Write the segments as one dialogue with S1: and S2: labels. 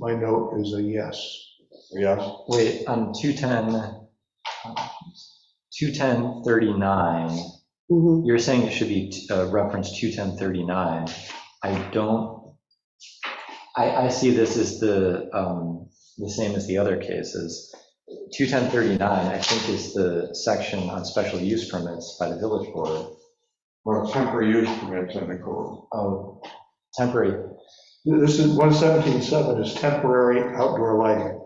S1: My note is a yes.
S2: Yes,
S3: Wait, on 210, 21039,
S4: Mhm.
S3: you're saying it should be uh, reference 21039. I don't, I, I see this as the, um, the same as the other cases. 21039, I think, is the section on special use permits by the village board.
S2: well, temporary use permits in the code.
S3: Oh, temporary,
S1: This is, 117.7 is temporary outdoor lighting.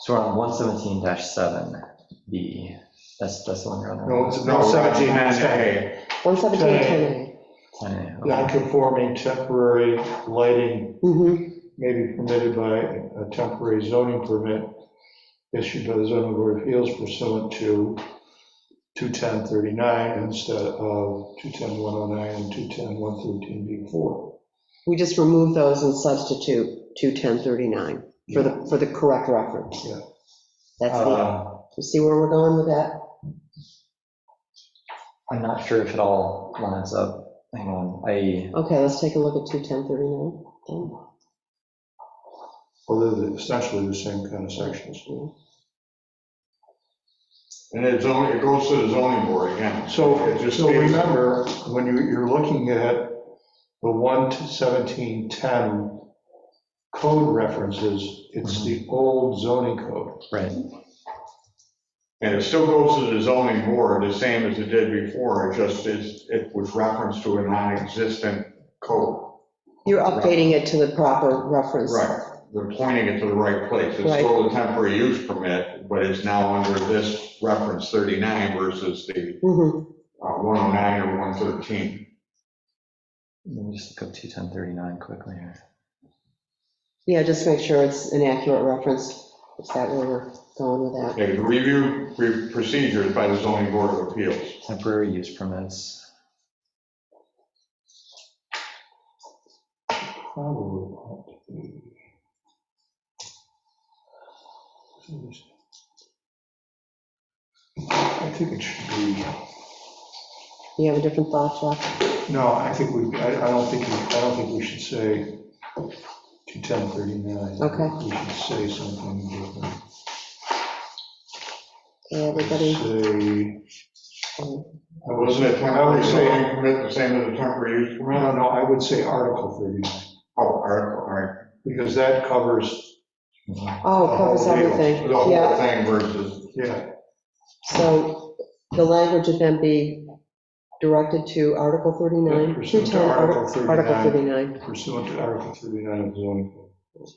S3: so we're on 117-7B. That's, that's the one you're on.
S1: No, it's no 17, it's 10.
S4: 117, 10A.
S3: Okay.
S1: Non-conforming temporary lighting
S4: Mhm.
S1: may be permitted by a temporary zoning permit issued by the zoning board of appeals pursuant to 21039 instead of 210109 and 210113B4.
S4: We just remove those and substitute 21039 for the, for the correct reference.
S1: Yeah.
S4: That's the,
S3: Uh,
S4: you see where we're going with that?
S3: I'm not sure if it all lines up. Hang on, I,
S4: Okay, let's take a look at 21039. then.
S1: Well, they're essentially the same kind of sections.
S2: And it's only, it goes to the zoning board again. It
S1: So,
S2: just
S1: so
S2: stays-
S1: remember, when you, you're looking at the one to seventeen ten code references, it's
S2: Mm-hmm.
S1: the old zoning code.
S3: right,
S2: And it still goes to the zoning board, the same as it did before, it just is, it was referenced to a non-existent code.
S4: You're updating it to the proper reference.
S2: Right, they're pointing it to the right place. It's
S4: Right.
S2: still a temporary use permit, but it's now under this reference 39 versus the
S4: Mhm.
S2: uh, 109 or 113.
S3: let me just look up 21039 quickly here.
S4: Yeah, just make sure it's an accurate reference. Is that where we're going with that?
S2: Okay, review re- procedures by the zoning board of appeals.
S3: Temporary use permits.
S1: Probably ought to be. I think it should be,
S4: You have a different thought, Jeff?
S1: no, I think we, I, I don't think, we- I don't think we should say to ten thirty-nine.
S4: Okay.
S1: We should say something different.
S4: Okay, everybody?
S1: Say. I was
S2: Wasn't it
S1: I
S2: temporary
S1: would say-
S2: zoning permit the same as a temporary use
S1: No,
S2: permit?
S1: no, I would say Article 39,
S2: Oh, all right, all right.
S1: because that covers,
S4: Oh, it covers
S2: The whole deal.
S4: everything.
S2: The whole
S4: Yeah,
S2: thing versus,
S1: yeah,
S4: so the language would then be directed to Article 39.
S1: Pursuant to
S4: 210, Arti-
S1: Article
S4: Article
S1: 39.
S4: 39.
S1: pursuant to Article 39 of the zoning code.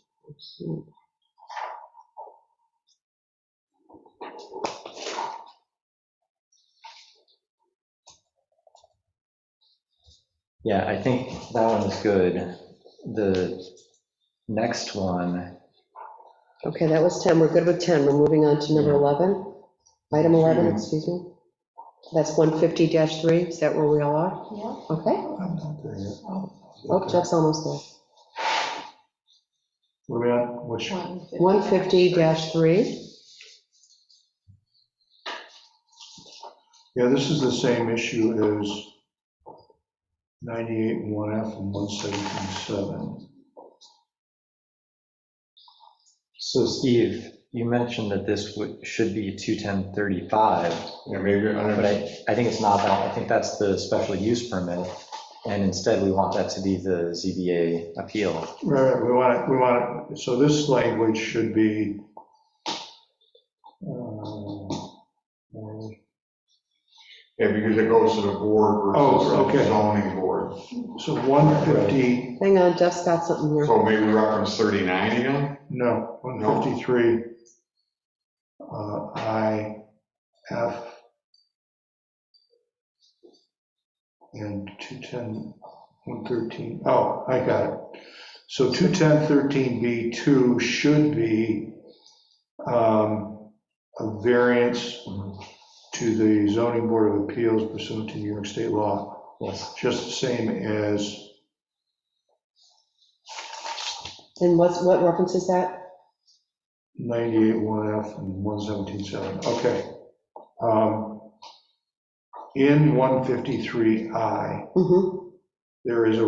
S3: Yeah, I think that one is good. The next one,
S4: Okay, that was 10, we're good with 10, we're moving on to number 11, item 11,
S2: Mhm.
S4: excuse me. That's 150-3, is that where we all are? Yeah. Okay,
S1: I'm not there yet.
S4: oh, Jeff's almost
S1: What about, which,
S4: there. 150-3,
S1: yeah, this is the same issue as 98 and 1F and 117.7.
S3: so Steve, you mentioned that this would, should be 21035,
S2: yeah, maybe, I don't
S3: but I,
S2: know.
S3: I think it's not that. I think that's the special use permit. And instead, we want that to be the ZBA appeal.
S1: Right, we want, it. we want, it. so this language should be, uh,
S2: Yeah, because it goes to the board
S1: Oh,
S2: versus the
S1: okay.
S2: zoning board.
S1: so 150,
S4: hang on, Jeff's got something here.
S2: So maybe reference 39 again?
S1: No, 153, uh, I, F, and 210, 113, oh, I got it. So 210.13B2 should be um, a variance to the zoning board of appeals pursuant to New York state law,
S3: Yes.
S1: just the same as
S4: And what's, what reference is that?
S1: 98.1F and 117.7, okay. Um, In 153I,
S4: Mm-hmm.
S1: there is a